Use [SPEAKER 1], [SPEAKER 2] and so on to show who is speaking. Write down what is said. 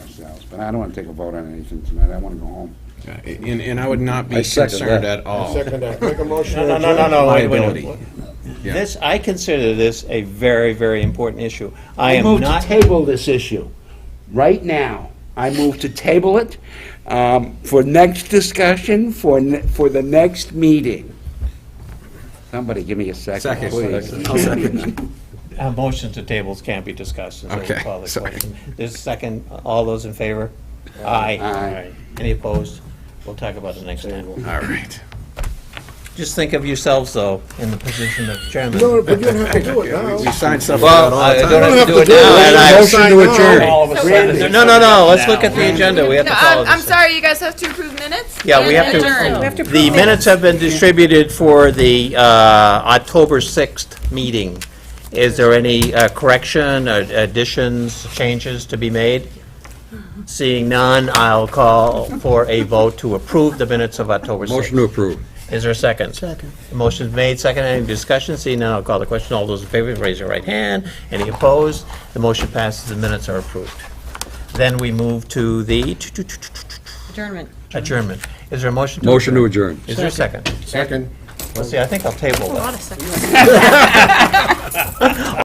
[SPEAKER 1] But I don't want to take a vote on anything tonight, I want to go home.
[SPEAKER 2] Uh, And, and I would not be
[SPEAKER 3] I second
[SPEAKER 2] concerned
[SPEAKER 3] that.
[SPEAKER 2] at all.
[SPEAKER 4] Second that. Make a motion.
[SPEAKER 5] No, no, no, no, no. wait, wait, wait.
[SPEAKER 2] Liability. Yeah.
[SPEAKER 5] This, I consider this a very, very important issue. I
[SPEAKER 1] I
[SPEAKER 5] am
[SPEAKER 1] move to
[SPEAKER 5] not,
[SPEAKER 1] table this issue, right now. I move to table it um, for next discussion, for, ne- for the next meeting. Somebody give me a second,
[SPEAKER 2] Second.
[SPEAKER 1] please.
[SPEAKER 5] uh, motions to tables can't be discussed until we
[SPEAKER 2] Okay,
[SPEAKER 5] call the
[SPEAKER 2] sorry.
[SPEAKER 5] question. There's a second, all those in favor? Aye.
[SPEAKER 1] Aye.
[SPEAKER 5] Any opposed? We'll talk about it next time.
[SPEAKER 2] All right.
[SPEAKER 5] Just think of yourselves, though, in the position of chairman.
[SPEAKER 4] No, but you don't have to do it
[SPEAKER 2] Yeah,
[SPEAKER 4] now.
[SPEAKER 2] we- We sign stuff like that
[SPEAKER 5] Well,
[SPEAKER 2] all the
[SPEAKER 5] I
[SPEAKER 2] time.
[SPEAKER 5] don't have to do it
[SPEAKER 4] do
[SPEAKER 5] now,
[SPEAKER 4] it.
[SPEAKER 5] and I-
[SPEAKER 4] Motion to adjourn.
[SPEAKER 5] All of a sudden.
[SPEAKER 1] Randy.
[SPEAKER 5] No, no, no, let's look at the agenda, we have to
[SPEAKER 6] No,
[SPEAKER 5] follow
[SPEAKER 6] I'm, I'm
[SPEAKER 5] this.
[SPEAKER 6] sorry, you guys have to approve minutes?
[SPEAKER 5] Yeah, we
[SPEAKER 6] and
[SPEAKER 5] have to-
[SPEAKER 6] adjourn.
[SPEAKER 7] We have to
[SPEAKER 5] The
[SPEAKER 7] prove it.
[SPEAKER 5] minutes have been distributed for the uh, October 6th meeting. Is there any uh, correction, or additions, changes to be made? Seeing none, I'll call for a vote to approve the minutes of October 6th.
[SPEAKER 3] Motion to approve.
[SPEAKER 5] Is there a second? Second. Motion's made, second, any discussion? Seeing none, I'll call the question. All those in favor, raise your right hand. Any opposed? The motion passes, the minutes are approved. Then we move to the
[SPEAKER 7] Adjournment.
[SPEAKER 5] adjournment. Is there a motion to?
[SPEAKER 3] Motion to adjourn.
[SPEAKER 5] Is there a second?
[SPEAKER 4] Second.
[SPEAKER 5] Let's see, I think I'll table that.
[SPEAKER 7] Hold on a second.